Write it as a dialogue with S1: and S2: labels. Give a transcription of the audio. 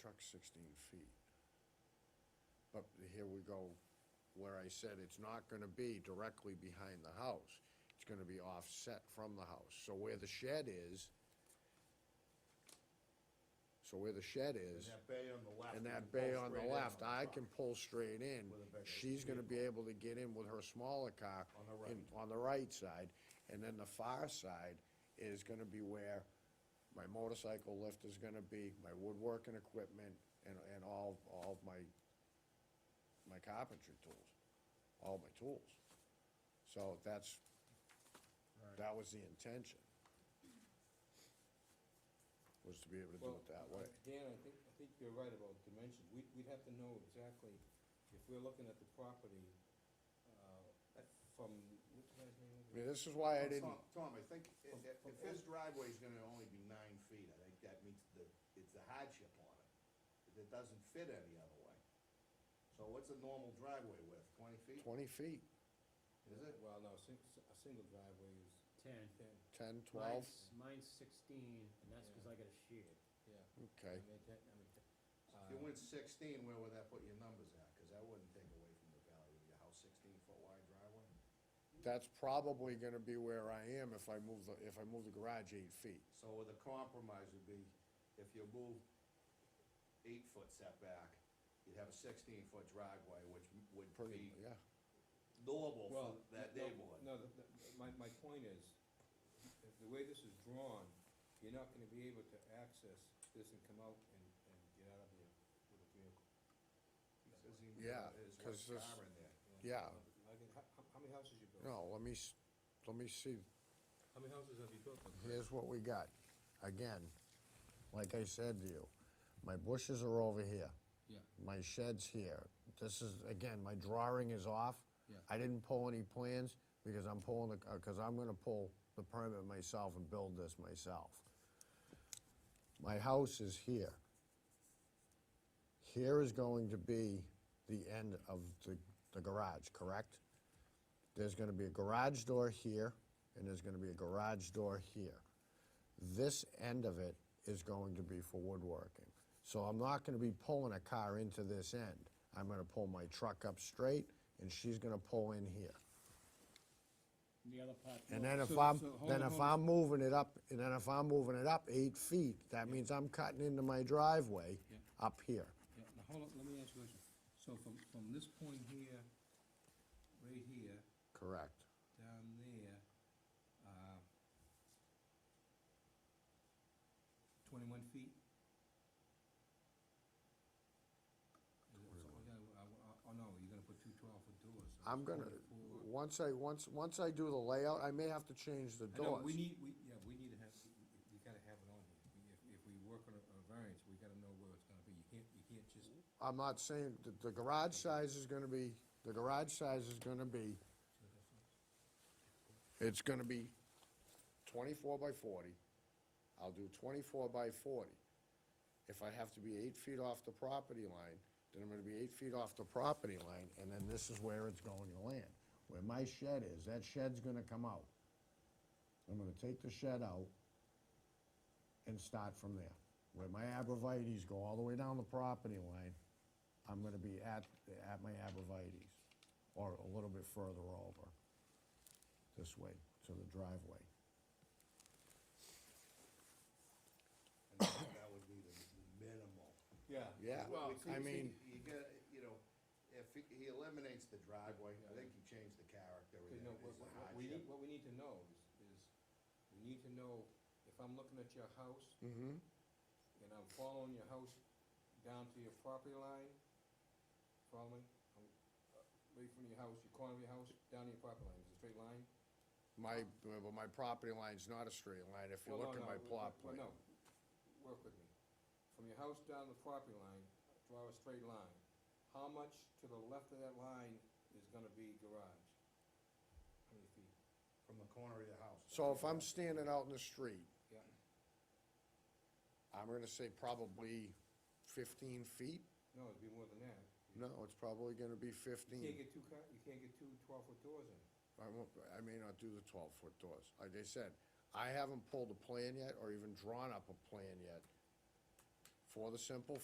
S1: truck's sixteen feet. But here we go, where I said it's not gonna be directly behind the house. It's gonna be offset from the house. So where the shed is, so where the shed is.
S2: And that bay on the left.
S1: And
S2: you
S1: that
S2: can pull
S1: bay on
S2: straight
S1: the
S2: in
S1: left, I
S2: truck.
S1: can pull straight in.
S2: With a bigger
S1: She's gonna be
S2: vehicle.
S1: able to get in with her smaller car.
S2: On the
S1: in- On the right side, and then the far side is gonna be where my motorcycle lift is gonna be, my woodworking equipment, and, and all, all of my, my carpentry tools, all my tools. So that's, that was the intention. Was to be able to do
S3: Well,
S1: it that way.
S3: Dan, I think, I think you're right about dimensions. We'd, we'd have to know exactly, if we're looking at the property, uh, from, what's the guy's name?
S1: I mean, this is why I
S2: Tom-
S1: didn't.
S2: Tom, I think i-
S3: From-
S2: i- if
S3: from-
S2: his driveway's gonna only be nine feet, I think that meets the, it's a hardship on it. It doesn't fit any other way. So what's a normal driveway width, twenty feet?
S1: twenty feet,
S2: Is it?
S3: Well, no, sing, a single driveway is
S4: Ten.
S3: ten,
S1: ten, twelve,
S4: Mine's- Mine's sixteen, and that's because I got a sheared.
S3: yeah.
S1: okay.
S3: I mean, that, I mean, Uh,
S2: If you went sixteen, where would that put your numbers at? Cause that wouldn't take away from the value of your house, sixteen foot wide driveway.
S1: That's probably gonna be where I am if I move the, if I move the garage eight feet.
S2: So the compromise would be, if you move eight foot setback, you'd have a sixteen foot driveway, which m- would
S1: Pretty,
S2: be
S1: yeah,
S2: doable for
S3: Well,
S2: that
S3: no,
S2: neighborhood.
S3: No, the, the, my, my point is, the, the way this is drawn, you're not gonna be able to access this and come out and, and get out of there with a vehicle.
S2: Says he-
S1: Yeah,
S2: his
S1: 'cause this-
S2: wife's car in there.
S1: Yeah.
S3: Like, how, how- how many houses you built?
S1: no, let me, s- let me see,
S3: How many houses have you built?
S1: here's what we got. Again, like I said to you, my bushes are over here.
S3: Yeah.
S1: My shed's here. This is, again, my drawing is off.
S3: Yeah.
S1: I didn't pull any plans because I'm pulling the, uh, cause I'm gonna pull the permit myself and build this myself. My house is here. Here is going to be the end of the, the garage, correct? There's gonna be a garage door here, and there's gonna be a garage door here. This end of it is going to be for woodworking. So I'm not gonna be pulling a car into this end. I'm gonna pull my truck up straight, and she's gonna pull in here.
S4: The other part.
S1: And then if
S3: So-
S1: I'm,
S3: so hold
S1: then
S3: on,
S1: if
S3: hold on.
S1: I'm moving it up, and then if I'm moving it up eight feet, that means I'm cutting into my driveway
S3: Yeah.
S1: up here.
S3: Yeah, now hold on, let me ask you a question. So from, from this point here, right here,
S1: Correct.
S3: down there, uh, twenty-one feet? Is it- so- yeah, I- I- Oh, no, you're gonna put two twelve-foot doors. so
S1: I'm
S3: it's
S1: gonna,
S3: 24.
S1: once I, once, once I do the layout, I may have to change the
S3: I know,
S1: doors.
S3: we need, we, yeah, we need to have, we- we- we gotta have it on here. We- If, if we work on a a variance, we gotta know where it's gonna be. You can't, you can't just,
S1: I'm not saying, that the garage size is gonna be, the garage size is gonna be, it's gonna be twenty-four by forty. I'll do twenty-four by forty. If I have to be eight feet off the property line, then I'm gonna be eight feet off the property line, and then this is where it's going to land. Where my shed is, that shed's gonna come out. I'm gonna take the shed out and start from there. Where my abrevieties go all the way down the property line, I'm gonna be at, at my abrevieties, or a little bit further over, this way, to the driveway.
S2: And that that would be the the minimal.
S3: yeah.
S1: Yeah, I
S2: Well, see- see,
S1: mean,
S2: You get, you know, if he- he eliminates the driveway, I think you change the character. and
S3: Because, no,
S2: it
S3: what,
S2: is
S3: what,
S2: a
S3: what
S2: hardship.
S3: we need, what we need to know is, is, we need to know, if I'm looking at your house,
S1: mhm,
S3: and I'm following your house down to your property line, following, um, right from your house, your corner of your house, down to your property line, is it a straight line?
S1: my, well, my property line's not a straight line, if you
S3: Well,
S1: look at
S3: no,
S1: my
S3: no,
S1: plot
S3: well,
S1: plan.
S3: No, work with me. From your house down the property line, draw a straight line. How much to the left of that line is gonna be garage? How many feet?
S2: From the corner of your house.
S1: So if I'm standing out in the street,
S3: Yeah,
S1: I'm gonna say probably fifteen feet?
S3: no, it'd be more than that.
S1: No, it's probably gonna be
S3: You can't
S1: fifteen.
S3: get two car, you can't get two twelve-foot doors in.
S1: I won't, I may not do the twelve-foot doors. Like I said, I haven't pulled a plan yet, or even drawn up a plan yet, for the simple